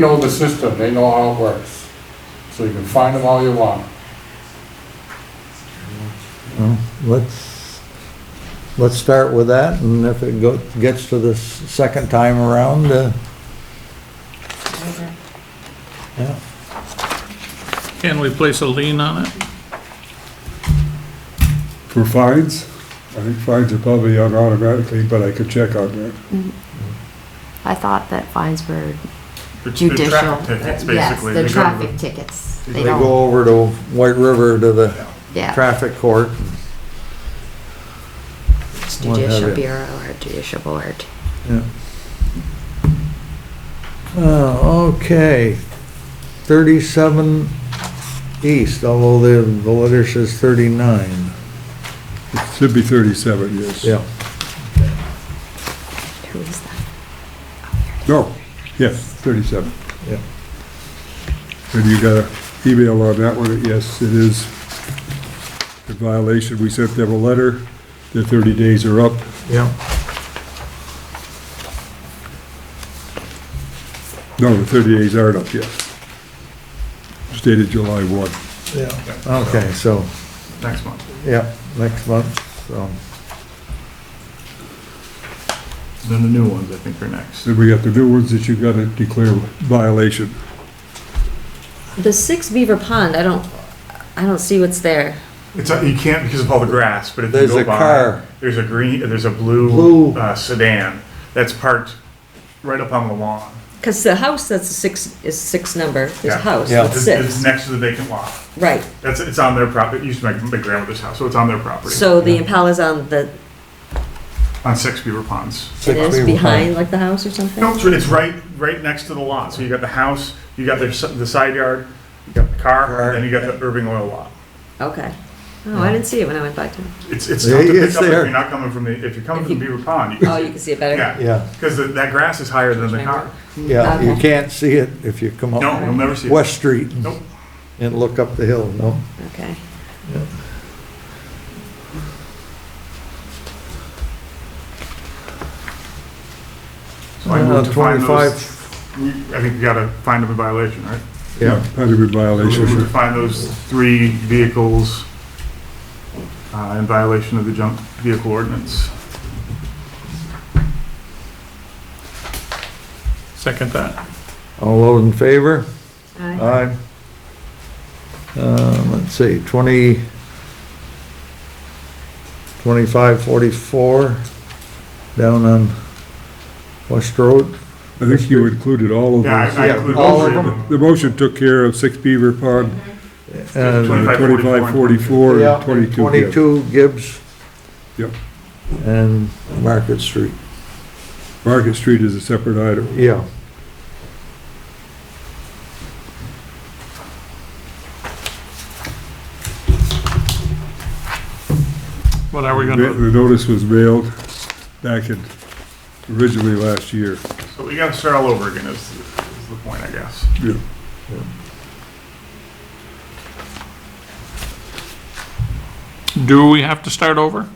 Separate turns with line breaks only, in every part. They know the system, they know how it works. So you can find them all you want.
Well, Let's, let's start with that, and if it go- gets to the s- second time around, uh, yeah,
Can we place a lien on it?
For fines, I think fines are probably out automatically, but I could check on that.
I thought that fines were
It's the
judicial.
Traffic tickets,
uh, Yes,
basically.
the
They go to the-
traffic tickets.
they
They don't,
go over to White River to the
yeah,
traffic court.
it's
what have
judicial
you.
bureau or judicial board.
Uh, okay, thirty-seven east, although the, the letter says thirty-nine.
It should be 37, yes.
Yeah.
Who is that?
No, yes, 37.
Yeah.
And you got an email on that one, yes, it is a violation. We sent them a letter, their 30 days are up.
Yeah.
No, the 30 days aren't up yet. Stated July 1.
Yeah. Okay, so,
Next month.
yeah, next month, so,
Then the new ones, I think, are next.
Then we got the new ones that you got to declare violation.
The six beaver pond, I don't, I don't see what's there.
It's, a- you can't because of all the grass, but if you
There's
go
a
by,
car.
there's a green, there's a
Blue.
blue uh, sedan that's parked right up on the lawn.
Because the house that's a six, is six number, there's
Yeah.
a house,
Yeah.
that's
It's it's
six,
next to the vacant lot.
right.
That's, it's on their property, it used to be my my grandmother's house, so it's on their property.
So the Impala's on the,
On Six Beaver Ponds.
it
Six
is
people.
behind like the house or something?
No, it's it's right, right next to the lot. So you got the house, you got their s- the side yard, you got the car,
Car.
and then you got the Irving Oil lot.
Okay. Oh, I didn't see it when I went by to,
It's, it's
Yeah,
tough to
it's
pick up if
there.
you're not coming from the, if you're coming
If
from
you-
Beaver Pond. you
oh,
can
you
see-
can see it better?
Yeah,
Yeah,
because that grass is higher than the car.
yeah, you
Okay.
can't see it if you come up.
No, you'll never see it.
West Street.
Nope.
And look up the hill, no?
Okay.
So
Uh,
I
Uh-huh.
moved to find those,
25,
we- I think we gotta find them in violation, right?
yeah,
Had to be
So We moved to
violation.
find those three vehicles uh, in violation of the junk vehicle ordinance.
Second that.
all those in favor?
Aye.
Aye. Um, let's see, 20, 25, 44, down on West Road.
I think you included all of
Yeah,
those.
I- I
Yeah,
included
all
all
of
three of
them.
them.
The motion took care of six Beaver Pond,
and-
Twenty-
25, 44,
Yeah,
and 22 Gibbs.
22 Gibbs.
Yep.
And Market Street,
Market Street is a separate item.
yeah.
What are we
The
gonna,
the notice was mailed back in, originally last year.
So we gotta start all over again is, is the point, I guess.
Yeah.
do we have to start over?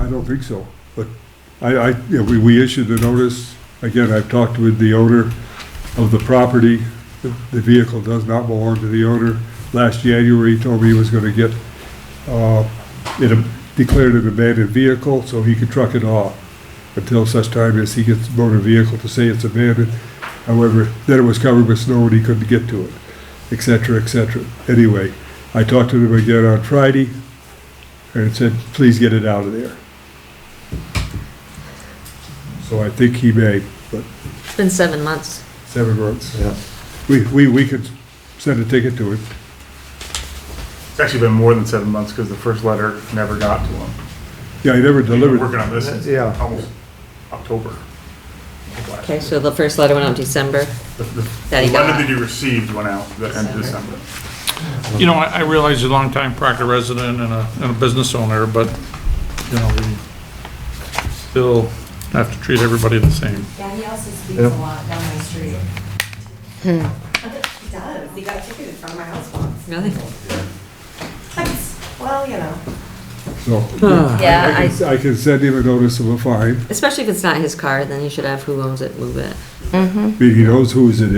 I don't think so, but I, I, yeah, we, we issued the notice. Again, I've talked with the owner of the property. The the vehicle does not belong to the owner. Last January, he told me he was gonna get, uh, it ab- declared an abandoned vehicle, so he could truck it off until such time as he gets a motor vehicle to say it's abandoned. However, then it was covered with snow and he couldn't get to it, et cetera, et cetera. Anyway, I talked to him again on Friday and said, please get it out of there. So I think he may, but
It's been seven months.
seven months.
Yeah.
We, we, we could send a ticket to him.
It's actually been more than seven months because the first letter never got to them.
Yeah, he never
We're
delivered.
working on this since
Yeah.
almost October. of last
Okay,
year.
so the first letter went out in December.
The the-
That he
the letter
got.
that you received went out the end of December.
December.
You know, I, I realize you're a longtime Proctor resident and a, and a business owner, but, you know, we still have to treat everybody the same.
Yeah, he also speaks
Yeah.
a lot down my street. He does, he got ticketed from my house once.
Really?
That's- Well, you know.
So
Uh-huh.
Yeah,
I
I,
can, I can send him a notice of a fine.
especially if it's not his car, then you should have who owns it move it.
I mean, He knows whose it